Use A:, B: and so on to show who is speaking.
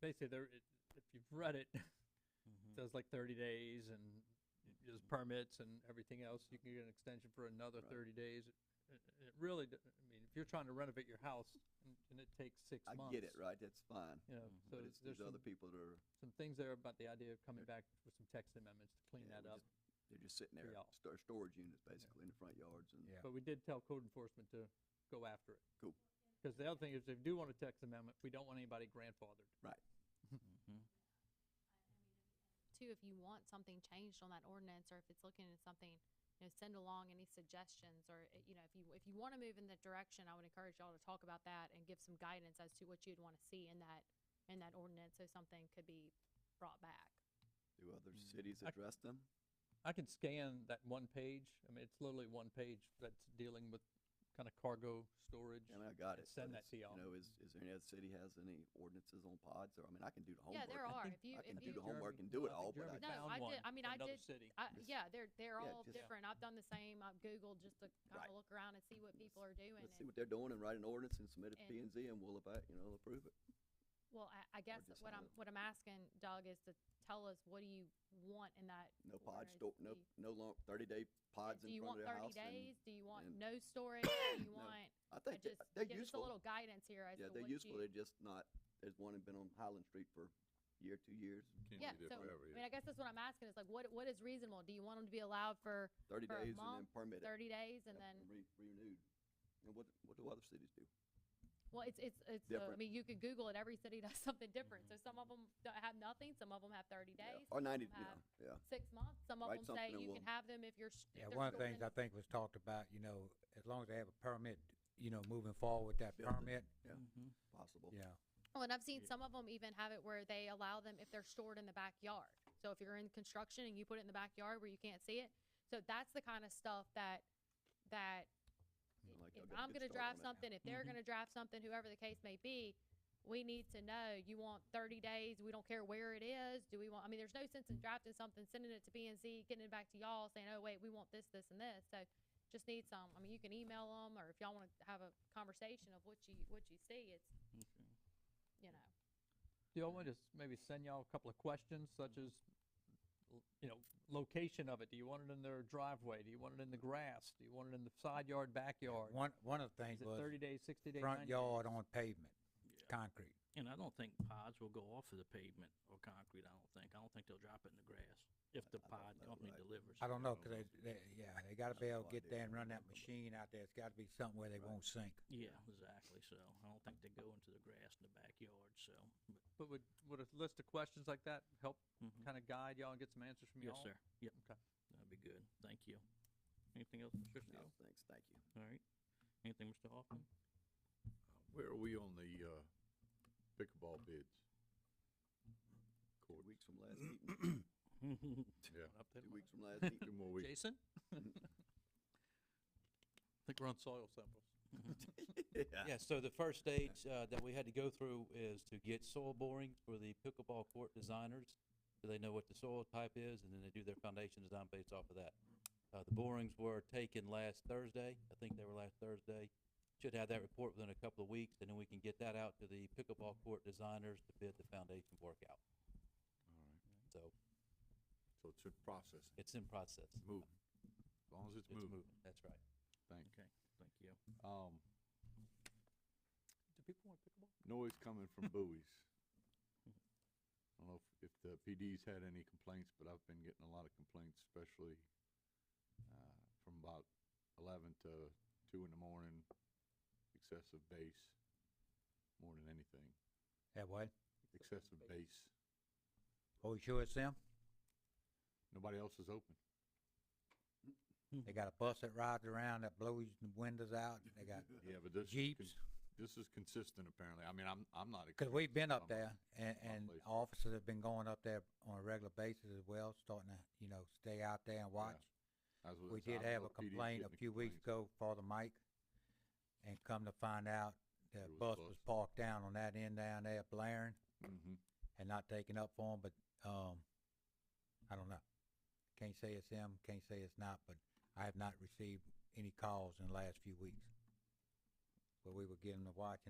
A: they say Um, there, it- if you've read it,
B: Mm-hmm.
A: there's like thirty days and y- there's permits and everything else, you can get an extension for another
B: Right.
A: thirty days. It- It really, d- I mean, if you're trying to renovate your house and, and it takes six
B: I
A: months.
B: get it, right, that's fine,
A: You know,
C: Mhm.
A: so
B: but it's
A: there's
B: these
A: some,
B: other people that are,
A: some things there about the idea of coming back with some text amendments to clean
B: Yeah,
A: that
B: we
A: up.
B: they're just sitting there,
A: y'all.
B: sto- storage units basically in the front yards and.
D: Yeah.
A: But we did tell code enforcement to go after it.
B: Cool.
A: Because the other thing is, if you do want a text amendment, we don't want anybody grandfathered. Mm-hmm.
E: too, if you want something changed on that ordinance, or if it's looking at something, you know, send along any suggestions, or, uh, you know, if you, if you wanna move in that direction, I would encourage y'all to talk about that and give some guidance as to what you'd wanna see in that, in that ordinance, so something could be brought back.
B: Do other cities
A: Mm-hmm. I-
B: address them?
A: I can scan that one page, I mean, it's literally one page that's dealing with kind of cargo storage.
B: I mean, I got
A: and
B: it. but
A: send that to
B: it's,
A: y'all.
B: You know, is, is there any other city has any ordinances on pods or, I mean, I can do the
E: Yeah,
B: homework.
E: there are, if you,
B: Oh, I can
E: if
B: do the
E: you,
A: Jeremy-
B: homework and do
A: I
B: it
A: think
B: all, but
A: Jeremy
E: No,
B: I,
A: found
E: I did-
A: one
E: I mean,
A: from
E: I
A: another
E: did-
A: city.
E: I,
B: Just-
E: yeah, they're, they're
B: yeah,
E: all
B: just-
E: different, I've done the same, I've Googled just to
B: Right.
E: kinda look around and see what people are doing,
B: let's see
E: and,
B: what they're doing and write an ordinance and submit it to P and
E: and-
B: Z and we'll about, you know, approve it.
E: well, I, I guess
B: just
E: what
B: have
E: I'm,
B: it.
E: what I'm asking, Doug, is to tell us, what do you want in that
B: No pod
E: Ordinance
B: store, no,
E: be-
B: no long, thirty day pods
E: Do
B: in
E: you
B: front of
E: want
B: their house.
E: thirty days?
B: and
E: Do you want
B: and-
E: no storage? Do you
B: No.
E: want,
B: I
E: I
B: think
E: just,
B: they- they're
E: give us a
B: useful.
E: little guidance here as
B: Yeah,
E: to
B: they're
E: what
B: useful.
E: you.
B: They're just not, there's one that been on Highland Street for a year, two years,
E: Yeah, so, I mean, I guess that's what I'm asking, is like, what, what is reasonable? Do you want them to be allowed for
B: thirty
E: For a
B: days and then
E: month,
B: permit it.
E: thirty days and
B: yeah,
E: then,
B: Re, renewed. And what, what do other cities do?
E: well, it's, it's, it's, uh, I
B: Different. Mm-hmm.
E: mean, you could Google it, every city does something different. So some of them have nothing, some of them have thirty
B: Yeah,
E: days,
B: Or ninety, yeah,
E: have-
B: yeah.
E: six months, some of
B: Write
E: them
B: something
E: say
B: and
E: you
B: we'll-
E: can have them if you're. sh- if
D: Yeah,
E: they're
D: one of the
E: stored
D: things
E: in-
D: I think was talked about, you know, as long as they have a permit, you know, moving forward with that
B: Building.
D: permit, Mm-hmm.
B: Possible.
D: yeah.
E: Well, and I've seen some of them even have it where they allow them if they're stored in the backyard. So if you're in construction and you put it in the backyard where you can't see it, so that's the kind of stuff that, that
B: Sound like
E: if
B: y'all got a
E: I'm
B: good
E: gonna
B: start
E: draft
B: on Mm-hmm. it.
E: something, if they're
D: Mhm.
E: gonna draft something, whoever the case may be, we need to know, you want thirty days, we don't care where it is, do we want, I mean, there's no sense in drafting something, sending it to B and Z, getting it back to y'all, saying, oh, wait, we want this, this, and this, so just need some, I mean, you can email them, or if y'all wanna have a conversation of what you, what you see, it's, you know.
A: Do y'all want to s- maybe send y'all a couple of questions such as, l- you know, location of it? Do you want it in their driveway? Do you want it in the grass? Do you want it in the side yard, backyard?
D: One, one of the
A: Is
D: things
A: it
D: was
A: thirty days, sixty days,
D: front
A: ninety?
D: yard on pavement,
C: Yeah.
D: concrete.
C: And I don't think pods will go off of the pavement or concrete, I don't think. I don't think they'll drop it in the grass if the
B: I don't
C: pod
B: know,
C: company
B: right.
C: delivers.
D: I don't know, cause they, they, yeah, they gotta be able
B: have
D: to
B: no
D: get
B: idea
D: there and
B: what
D: run
B: they're
D: that
B: talking
D: machine
B: about.
D: out there. It's gotta be something where they
B: Right.
D: won't sink.
C: Yeah, exactly, so I don't think they go into the grass in the backyard, so, but,
A: But would, would a list of questions like that help
C: mhm.
D: Mm-hmm.
A: kind of guide y'all and get some answers from y'all?
C: yes, sir, yep.
A: Okay.
C: That'd be good, thank you. Anything else, Mr.
B: No,
C: Steele?
B: thanks, thank you.
C: All right, anything, Mr. Hoffman?
F: Where are we on the, uh, pickleball bids?
B: Two
F: Court,
B: weeks from last meeting,
F: yeah,
A: Up there.
B: two weeks from last meeting.
F: two more weeks.
A: Jason? I think we're on soil samples.
B: Yeah.
G: Yeah, so the first stage uh, that we had to go through is to get soil borings for the pickleball court designers. So they know what the soil type is, and then they do their foundation design based off of that. Uh, The borings were taken last Thursday. I think they were last Thursday. Should have that report within a couple of weeks, and then we can get that out to the pickleball court designers to bid the foundation work out.
F: All right,
G: So
F: so it's in process,
G: it's in process.
F: move, as long as it's
G: It's
F: moving,
G: moving, that's right.
F: thank you.
C: Okay, thank you.
F: Um,
A: Do people want pickleball?
F: noise coming from buoys. I don't know if, if the PD's had any complaints, but I've been getting a lot of complaints, especially, uh, from about eleven to two in the morning, excessive bass, more than anything,
D: That what?
F: excessive bass.
D: Oh, you sure it's them?
F: Nobody else is open.
D: They got a bus that rides around that blows the windows out. They got
F: Yeah, but this is,
D: jeeps.
F: con- this is consistent apparently. I mean, I'm, I'm not.
D: Because
F: experienced
D: we've been up
F: on that.
D: there, and,
F: my
D: and
F: place.
D: officers have been going up there on a regular basis as well, starting to, you know, stay out there and watch.
F: That's what
D: We
F: it's- I
D: did
F: know
D: have a
F: the PD is
D: complaint a
F: getting
D: few weeks
F: complaints.
D: ago, Father Mike, and come to find out, the
F: There was a
D: bus was
F: bus.
D: parked down on that end down there blaring
F: Mhm.
D: and not taken up for 'em, but, um, I don't know. Can't say it's them, can't say it's not, but I have not received any calls in the last few weeks. But we were getting to watch